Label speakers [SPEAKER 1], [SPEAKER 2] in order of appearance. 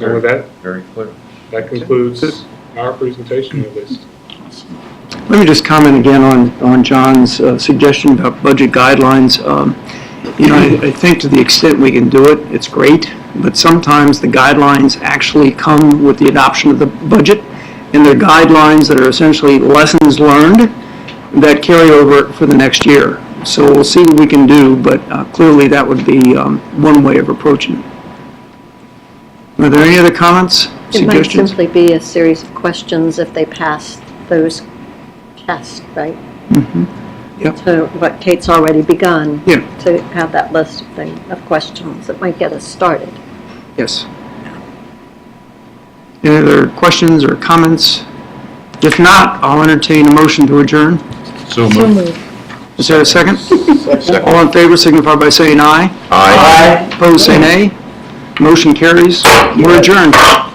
[SPEAKER 1] And with that,
[SPEAKER 2] Very clear.
[SPEAKER 1] that concludes our presentation of this.
[SPEAKER 3] Let me just comment again on, on John's uh, suggestion about budget guidelines. Um, You know, I I think to the extent we can do it, it's great, but sometimes the guidelines actually come with the adoption of the budget, and they're guidelines that are essentially lessons learned that carry over for the next year. So we'll see what we can do, but uh, clearly that would be um, one way of approaching it. Are there any other comments,
[SPEAKER 4] It might
[SPEAKER 3] suggestions?
[SPEAKER 4] simply be a series of questions if they pass those tests, right?
[SPEAKER 3] Mm-hmm. Yep.
[SPEAKER 4] So what Kate's already begun.
[SPEAKER 3] Yeah.
[SPEAKER 4] To have that list of things, of questions that might get us started.
[SPEAKER 3] Yes. Any other questions or comments? If not, I'll entertain a motion to adjourn.
[SPEAKER 2] So moved.
[SPEAKER 3] Is there a second? All in favor signify by saying aye.
[SPEAKER 2] Aye.
[SPEAKER 3] Opposed, say nay. Motion carries. We're adjourned.